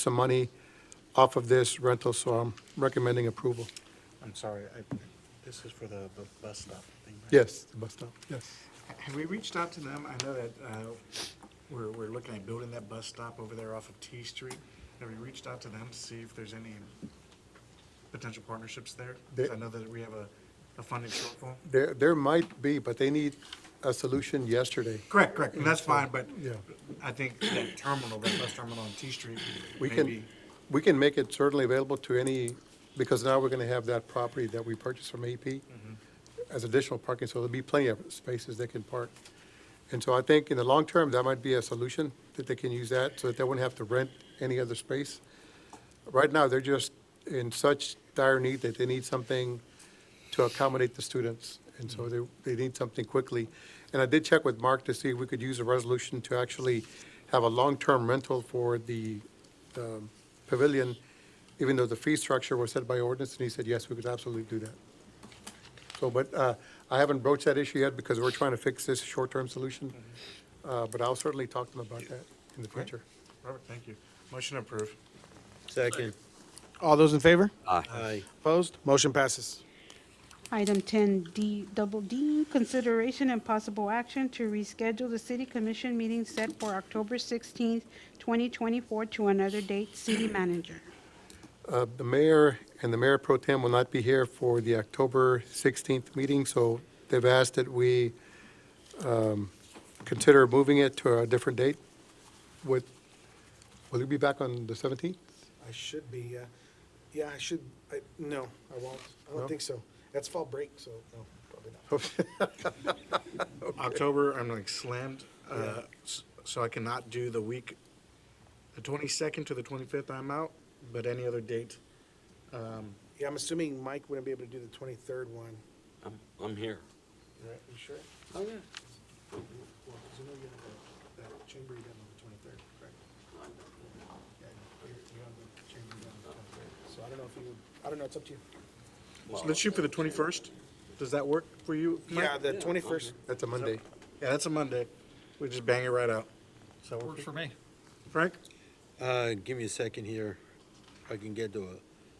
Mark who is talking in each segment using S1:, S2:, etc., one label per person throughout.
S1: some money off of this rental, so I'm recommending approval.
S2: I'm sorry, I, this is for the bu- bus stop thing, right?
S1: Yes, the bus stop, yes.
S2: Have we reached out to them? I know that, uh, we're, we're looking at building that bus stop over there off of T Street. Have we reached out to them to see if there's any potential partnerships there? Because I know that we have a, a funding shortfall.
S1: There, there might be, but they need a solution yesterday.
S2: Correct, correct, and that's fine, but
S1: Yeah.
S2: I think that terminal, that bus terminal on T Street,
S1: We
S2: maybe,
S1: can, we can make it certainly available to any, because now we're going to have that property that we purchased from AP as additional parking, so there'll be plenty of spaces they can park. And so I think in the long term, that might be a solution, that they can use that, so that they wouldn't have to rent any other space. Right now, they're just in such dire need that they need something to accommodate the students, and so they, they need something quickly. And I did check with Mark to see if we could use a resolution to actually have a long-term rental for the um, pavilion, even though the fee structure was set by ordinance, and he said, yes, we could absolutely do that. So, but uh, I haven't broached that issue yet because we're trying to fix this short-term solution, Uh, but I'll certainly talk to them about that in the future.
S2: Robert, thank you. Motion approved.
S3: Second.
S4: All those in favor?
S3: Aye.
S4: Opposed? Motion passes.
S5: Item ten D, double D, consideration and possible action to reschedule the city commission meeting set for October sixteenth, twenty twenty-four to another date. City manager.
S1: Uh, The mayor and the mayor pro tem will not be here for the October 16th meeting, so they've asked that we um, consider moving it to a different date. Would, will you be back on the 17th?
S4: I should be, uh, yeah, I should, I, no, I won't. I
S1: No?
S4: don't think so. That's fall break, so no, probably not.
S2: October, I'm like slammed, uh, s- so I cannot do the week, the 22nd to the 25th, I'm out, but any other date,
S4: Yeah, I'm assuming Mike wouldn't be able to do the twenty-third one.
S3: I'm, I'm here.
S4: Right, you sure?
S3: Oh, yeah.
S4: Well, 'cause I know you have that chamber you got on the twenty-third, correct? Yeah, you you have the chamber you got on the 23rd. So I don't know if you, would- I don't know, it's up to you.
S2: so let's shoot for the 21st. Does that work for you? Mike?
S4: Yeah, the twenty-first,
S1: That's a Monday.
S2: Yeah, that's a Monday. We just bang it right out. So
S6: Works for me.
S2: Frank?
S3: Uh, give me a second here. I can get to a,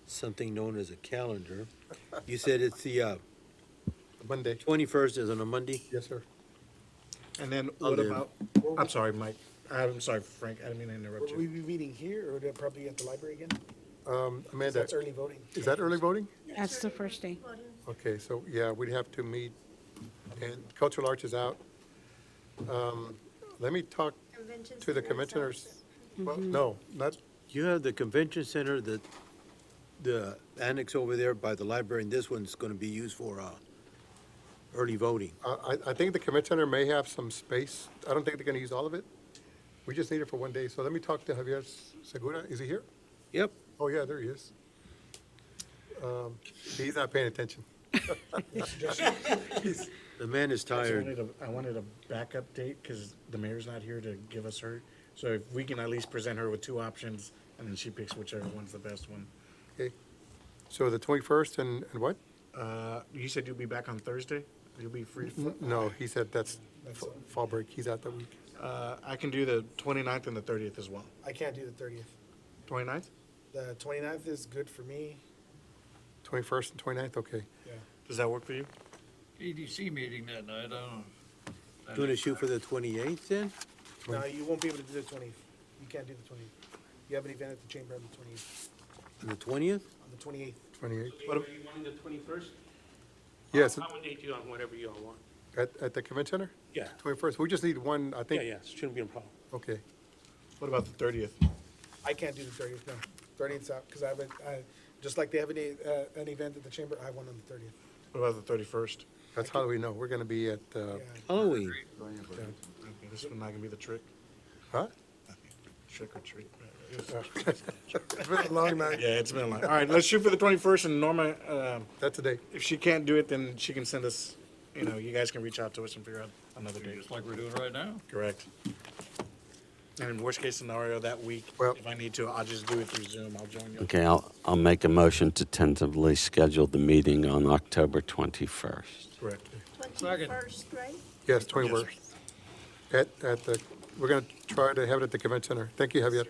S3: something known as a calendar. You said it's the, uh,
S1: Monday.
S3: twenty-first is on a Monday?
S1: Yes, sir.
S2: And then
S3: I'll
S2: what
S3: do.
S2: about, I'm sorry, Mike. I'm sorry, Frank, I didn't mean to interrupt
S4: will we
S2: you.
S4: be meeting here or probably at the library again?
S1: Um, Amanda,
S4: That's early voting.
S1: is that early voting?
S5: That's the first day.
S1: Okay, so, yeah, we'd have to meet, and Cultural Arts is out. Um, Let me talk to the commissioners. Well, No, not,
S3: You have the convention center, the, the annex over there by the library, and this one's gonna be used for, uh, early voting.
S1: I, I- I think the commit center may have some space. I don't think they're going to use all of it. We just need it for one day. So let me talk to Javier Segura. Is he here?
S3: Yep.
S1: Oh, yeah, there he is. Um, He's not paying attention.
S3: The man is
S2: I
S3: tired.
S2: wanted a- I wanted a backup date because the mayor's not here to give us her. So if we can at least present her with two options and then she picks whichever one's the best one.
S1: Okay. So the 21st and, and what?
S2: Uh, you said you'll be back on Thursday? You'll be free? fr-
S1: No, he said that's fa- fall break. He's out that week.
S2: Uh, I can do the 29th and the 30th as well.
S4: I can't do the thirtieth.
S2: 29th?
S4: The 29th is good for me.
S1: 21st and 29th, okay.
S4: Yeah.
S2: Does that work for you?
S6: EDC meeting that night, I don't know.
S3: You wanna shoot for the twenty-eighth then?
S4: No, you won't be able to do the 20th. You can't do the 20th. You have an event at the chamber on the 20th.
S3: On the twentieth?
S4: On the 28th.
S1: 28th.
S7: What are you wanting the twenty-first?
S1: Yes,
S7: I'll accommodate you on whatever you all want.
S1: at, at the commit center?
S7: Yeah,
S1: 21st. We just need one, I think.
S7: shouldn't be a problem.
S1: Okay.
S2: What about the 30th?
S4: I can't do the 30th, no. 30th's out, because I have a, I, just like they have an, e- uh, an event at the chamber, I have one on the 30th.
S2: What about the 31st?
S1: That's how we know. We're going to be at, uh,
S4: Yeah.
S3: Halloween.
S2: Okay, This is not gonna be the trick,
S1: huh?
S2: trick or treat.
S1: It's been a long night.
S2: Yeah, it's been a long. All right, let's shoot for the 21st and Norma, um,
S1: That's a day.
S2: if she can't do it, then she can send us, you know, you guys can reach out to us and figure out another date.
S6: Just like we're doing right now.
S2: Correct. And in worst case scenario, that week,
S1: Well-
S2: if I need to, I'll just do it through Zoom. I'll join you.
S8: Okay, I'll, I'll make a motion to tentatively schedule the meeting on October 21st.
S2: Correct.
S9: Twenty-first, right?
S1: Yes, 21st. At, at the, we're going to try to have it at the convention center. Thank you, Javier.